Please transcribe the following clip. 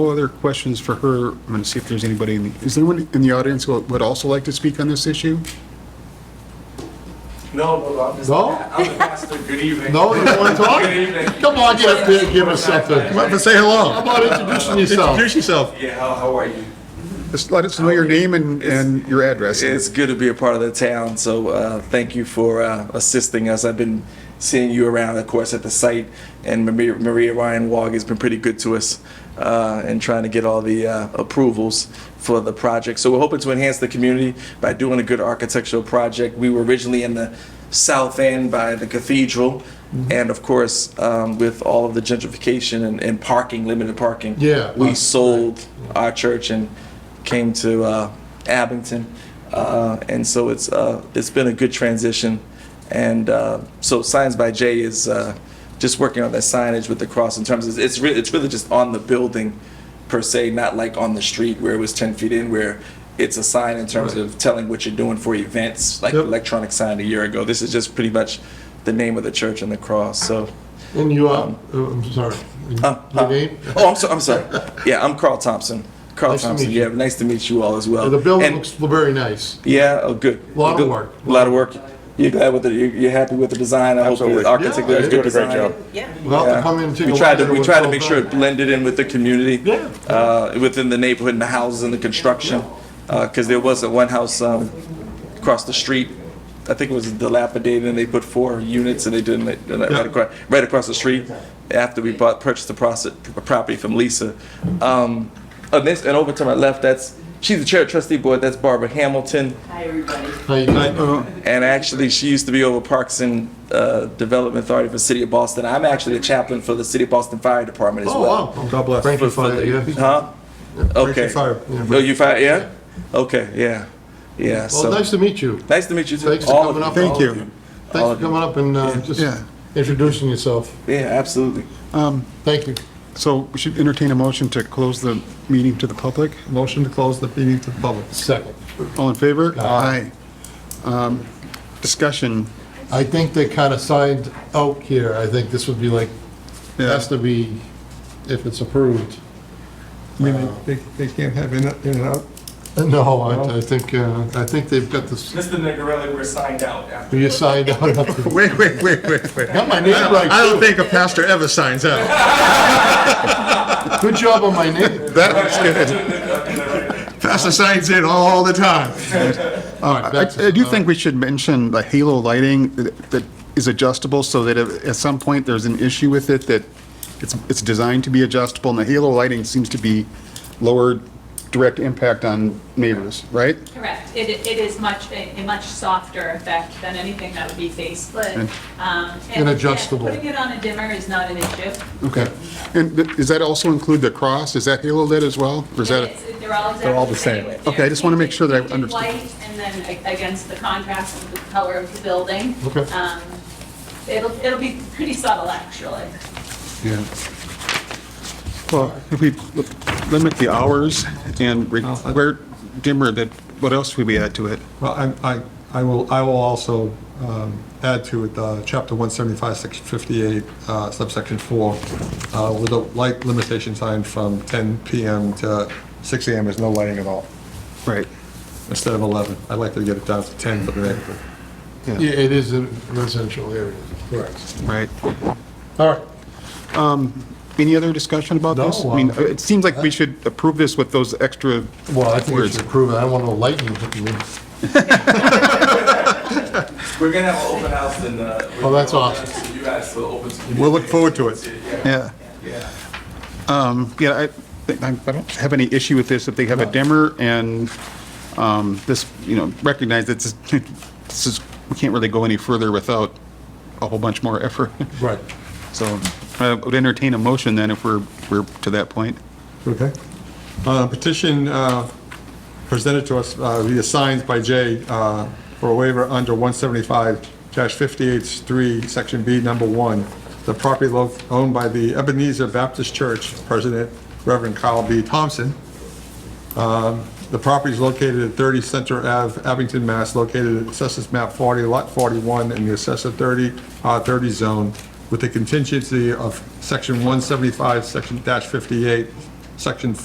Other questions for her? I'm going to see if there's anybody, in the- is there anyone in the audience who would also like to speak on this issue? No, no, I'm just. No? I'm the pastor, good evening. No, you don't want to talk? Good evening. Come on, get up there and give us something. Come up How and say hello. about introducing yourself? Introduce yourself. Yeah, how, how are you? Just let us know your name and, and your address. It's good to be a part of the town, so uh, thank you for uh, assisting us. I've been seeing you around, of course, at the site, and Maria- Maria Ryan Wog has been pretty good to us uh, in trying to get all the uh, approvals for the project. So we're hoping to enhance the community by doing a good architectural project. We were originally in the south end by the cathedral, Mm-hmm. and of course, um, with all of the gentrification and- and parking, limited parking. Yeah. We sold our church and came to uh, Abington, uh, and so it's uh, it's been a good transition. And uh, so Signs by Jay is uh, just working on that signage with the cross in terms of it's really it's really just on the building per se, not like on the street where it was 10 feet in where. It's a sign in terms of telling what you're doing for events, like Yep. electronic sign a year ago. This is just pretty much the name of the church and the cross. So, And you um, are, oh, I'm sorry, uh, your uh, name? Oh, I'm, so, I'm sorry. Yeah, I'm Carl Thompson. Carl Nice to meet Thompson. you. Yeah, nice to meet you all as well. The building And- looks very nice. Yeah, oh, good. Lot of Good. work. A lot of work. You're glad with it. You're, you're happy with the design. I Absolutely. hope the architect Yeah, did a they good did a great design. job. Yeah. We'll have Yeah. to come in and take a we look. tried at to it we when tried it's to all make sure it done. blended in with the community, Yeah. uh, within the neighborhood and the houses and the construction, because there was not one house um, across the street. I think it was dilapidated, and they put four units, and they didn't they- they're not right, across, right across the street. After we bought purchased the proce- property from Lisa, um, and, this, and over to my left, that's she's the chair of trustee board. That's Barbara Hamilton. Hi, everybody. How you doing? Uh, And actually, she used to be over Parks and uh, Development Authority for the City of Boston. I'm actually the chaplain for the City of Boston Fire Department as Oh, well. wow. God bless. Frankie Fire, uh, yeah. Huh? Okay. fire. Oh, you fire? Yeah. Okay. Yeah. Yeah. Well, So nice to meet you. nice to meet you. too. Thanks for All of coming up. Thank you. Thanks for coming up and uh, just Yeah. introducing yourself. Yeah, absolutely. Thank you. So we should entertain a motion to close the meeting to the public. Motion to close the meeting to the public. Second. All in favor? Aye. Um, Discussion. I think they kind of signed out here. I think this would be like, Yeah. has to be, if it's approved. I mean, they, they can't have in, in and out. No, I I think, uh, I think they've got this, Mr. Nigarelli, we're signed out after. you signed out. Got Wait, wait, wait, wait, wait. my name right. don't think a pastor ever signs out. Good job on my name. That was good. Pastor signs in all the time. All right, I back to- I do think we should mention the halo lighting that that is adjustable so that if- at some point there's an issue with it, that it's, it's designed to be adjustable, and the halo lighting seems to be lower direct impact on neighbors, right? Correct. It, it is much, a a much softer effect than anything that would be face split. Okay. Um, And adjustable. Putting it on a dimmer is not an issue. Okay. And th- does that also include the cross? Is that halo lit as well? Or is that? It is- They're all They're all the exactly the same. same. They're Okay, I just wanna make sure that I painted understood. White and then a- against the contrast of the color of the building. Okay. Um, It'll, it'll be pretty subtle, actually. Yeah. Well, if we limit the hours and require dimmer, that, what else would we add to it? Well, I, I, I will, I will also um, add to it, uh, chapter 175, section 58, uh, subsection 4, uh, with a light limitation sign from 10 PM to 6 AM is no lighting at all, Right. instead of 11. I'd like to get it down to 10 for the neighborhood. Yeah, it is a residential area. Correct. Right. All right. Any other discussion about this? No, I mean, uh, it seems like we should approve this with those extra Well, I think we words. should approve it. I want no lightning hitting me. We're gonna have an open house and. Uh, Oh, that's awesome. So you guys will open. to We'll look forward to it. communication. Yeah. Yeah. Um, Yeah, I, think- I I don't have any issue with this if they have a dimmer and um, this, you know, recognize that this this is, we can't really go any further without a whole bunch more effort. Right. So I would entertain a motion then if we're, we're to that point. Okay. Uh, Petition uh, presented to us uh, via signs by Jay uh, for a waiver under 175-58-3, Section B, Number 1, the property lo- owned by the Ebenezer Baptist Church, President Reverend Kyle B. Thompson. The property is located at 30 Center Ave, Abington, Mass., located at Assessors Map 40, Lot 41, in the Assessor 30, R30 zone, with the contingency of Section 175, Section dash 58, Section